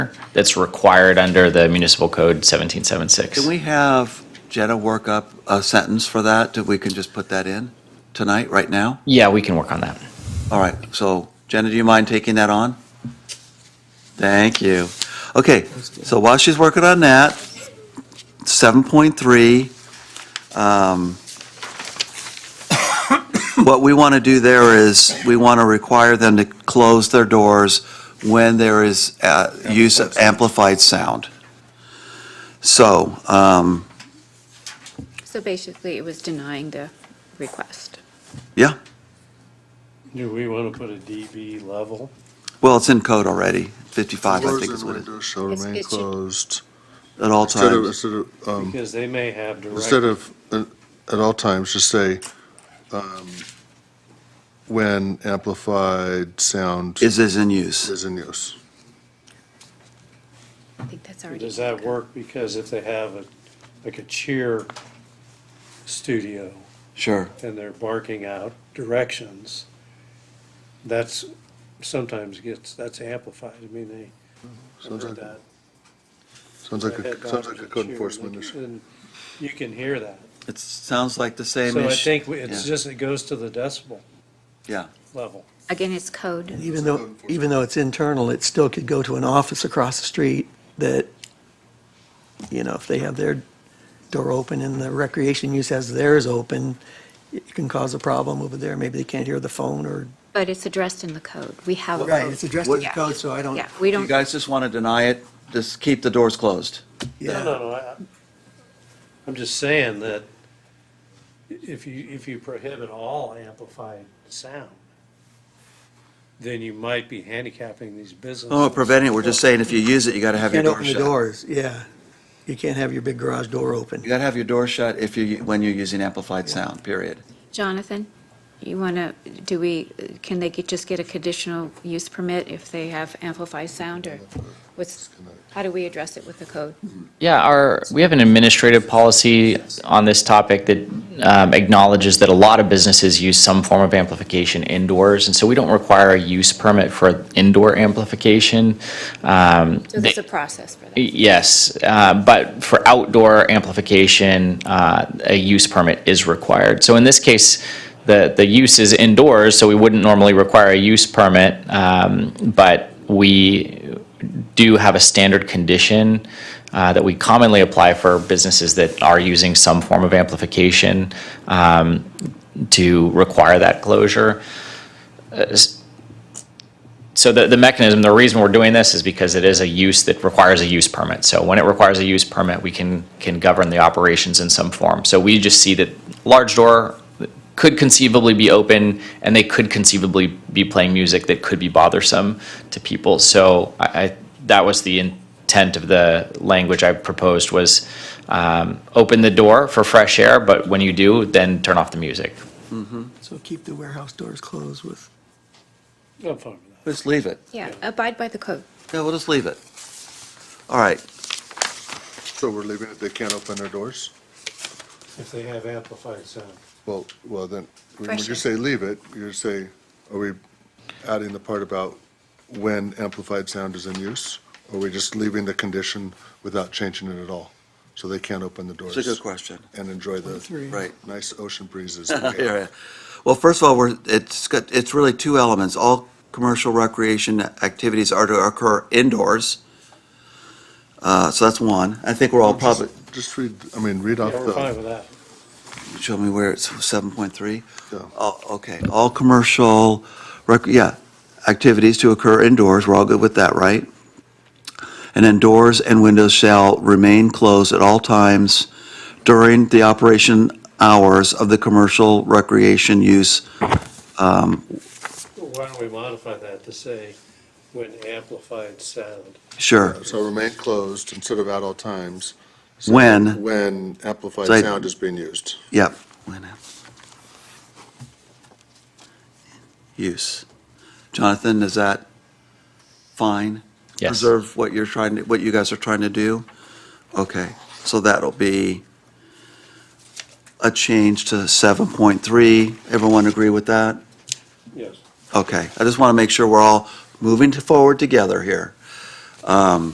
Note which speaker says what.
Speaker 1: that's required under the municipal code 1776.
Speaker 2: Can we have Jetta work up a sentence for that, that we can just put that in tonight, right now?
Speaker 1: Yeah, we can work on that.
Speaker 2: All right, so Jenna, do you mind taking that on? Thank you. Okay, so while she's working on that, 7.3, um, what we want to do there is, we want to require them to close their doors when there is uh, use of amplified sound. So, um,
Speaker 3: So basically, it was denying the request.
Speaker 2: Yeah,
Speaker 4: Do we want to put a dB level?
Speaker 2: well, it's in code already, 55, I
Speaker 5: Doors
Speaker 2: think is
Speaker 5: and
Speaker 2: what it,
Speaker 5: windows shall
Speaker 3: It's-
Speaker 5: remain
Speaker 3: it should-
Speaker 5: closed.
Speaker 2: at all
Speaker 5: Instead of,
Speaker 2: times.
Speaker 5: instead of, um,
Speaker 4: Because they may have
Speaker 5: instead
Speaker 4: direct,
Speaker 5: of, uh, at all times, just say, um, when amplified sound
Speaker 2: Is is in use.
Speaker 5: is in use.
Speaker 3: I think that's already.
Speaker 4: does that work? Because if they have a, like a cheer studio
Speaker 2: Sure.
Speaker 4: and they're barking out directions, that's, sometimes gets, that's amplified. I mean, they. I've
Speaker 5: Sounds
Speaker 4: heard
Speaker 5: like,
Speaker 4: that.
Speaker 5: sounds like,
Speaker 4: I've had
Speaker 5: a sounds like
Speaker 4: dogs
Speaker 5: a
Speaker 4: that
Speaker 5: code
Speaker 4: cheer,
Speaker 5: enforcement
Speaker 4: like,
Speaker 5: issue.
Speaker 4: and You can hear that.
Speaker 2: It sounds like the same
Speaker 4: So I
Speaker 2: issue.
Speaker 4: think we- it's
Speaker 2: yeah.
Speaker 4: just, it goes to the decibel.
Speaker 2: Yeah.
Speaker 4: Level.
Speaker 3: Again, it's code.
Speaker 6: Even though, even though it's internal, it still could go to an office across the street that, you know, if they have their door open and the recreation use has theirs open, it can cause a problem over there. Maybe they can't hear the phone or.
Speaker 3: But it's addressed in the code. We have. a
Speaker 6: Right,
Speaker 3: code.
Speaker 6: it's addressed
Speaker 2: in
Speaker 6: in
Speaker 2: the
Speaker 6: the
Speaker 3: Yeah.
Speaker 6: code, so I don't.
Speaker 3: Yeah, we
Speaker 2: You
Speaker 3: don't,
Speaker 2: guys just want to deny it, just keep the doors closed.
Speaker 4: No, no, no, I, I'm just saying that if you, if you prohibit all amplified sound, then you might be handicapping these businesses.
Speaker 2: Oh, preventing it, we're just saying if you use it, you got to have your
Speaker 6: Can't
Speaker 2: door
Speaker 6: open the
Speaker 2: shut.
Speaker 6: doors, yeah. You can't have your big garage door
Speaker 2: You
Speaker 6: open.
Speaker 2: got to have your door shut if you, when you're using amplified sound, period.
Speaker 3: Jonathan, you want to, do we, can they get- just get a conditional use permit if they have amplified sound or what's, how do we address it with the code?
Speaker 1: Yeah, our, we have an administrative policy on this topic that um, acknowledges that a lot of businesses use some form of amplification indoors, and so we don't require a use permit for indoor amplification. Um,
Speaker 3: So there's
Speaker 1: they-
Speaker 3: a process for that.
Speaker 1: Yes, uh, but for outdoor amplification, uh, a use permit is required. So in this case, the, the use is indoors, so we wouldn't normally require a use permit, um, but we do have a standard condition uh, that we commonly apply for businesses that are using some form of amplification um, to require that closure. So the, the mechanism, the reason we're doing this is because it is a use that requires a use permit. So when it requires a use permit, we can, can govern the operations in some form. So we just see that large door could conceivably be open and they could conceivably be playing music that could be bothersome to people. So I, I, that was the intent of the language I proposed was, um, open the door for fresh air, but when you do, then turn off the music.
Speaker 6: So keep the warehouse doors closed with.
Speaker 4: I'm fine with that.
Speaker 2: Just leave it.
Speaker 3: Yeah, abide by the code.
Speaker 2: Yeah, we'll just leave it. All right,
Speaker 5: So we're leaving it, they can't open their doors?
Speaker 4: If they have amplified sound.
Speaker 5: Well, well, then, when
Speaker 3: Fresh
Speaker 5: you
Speaker 3: air.
Speaker 5: say leave it, you say, are we adding the part about when amplified sound is in use? Or are we just leaving the condition without changing it at all? So they can't open the
Speaker 2: it's a good
Speaker 5: doors
Speaker 2: question,
Speaker 5: and enjoy
Speaker 6: Twenty-three.
Speaker 5: the
Speaker 2: right.
Speaker 5: nice ocean breezes. we
Speaker 2: Yeah,
Speaker 5: get.
Speaker 2: yeah. Well, first of all, we're, it's got, it's really two elements. All commercial recreation activities are to occur indoors. Uh, so that's one. I think we're all probably,
Speaker 5: Just read, I mean, read off
Speaker 4: Yeah, we're fine
Speaker 5: the,
Speaker 4: with that.
Speaker 2: show me where it's seven point three?
Speaker 5: Yeah.
Speaker 2: Oh, okay. All commercial rec, yeah, activities to occur indoors. We're all good with that, right? And then doors and windows shall remain closed at all times during the operation hours of the commercial recreation use. Um,
Speaker 4: Why don't we modify that to say when amplified sound?
Speaker 2: sure.
Speaker 5: so remain closed instead of at all times. So
Speaker 2: When?
Speaker 5: When amplified
Speaker 2: So I-
Speaker 5: sound is being used.
Speaker 2: Yep. When uh, am- Use. Jonathan, is that fine?
Speaker 1: Yes.
Speaker 2: Preserve what you're trying to, what you guys are trying to do? Okay, so that'll be a change to 7.3. Everyone agree with that?
Speaker 4: Yes.
Speaker 2: Okay, I just want to make sure we're all moving to- forward together here. Um,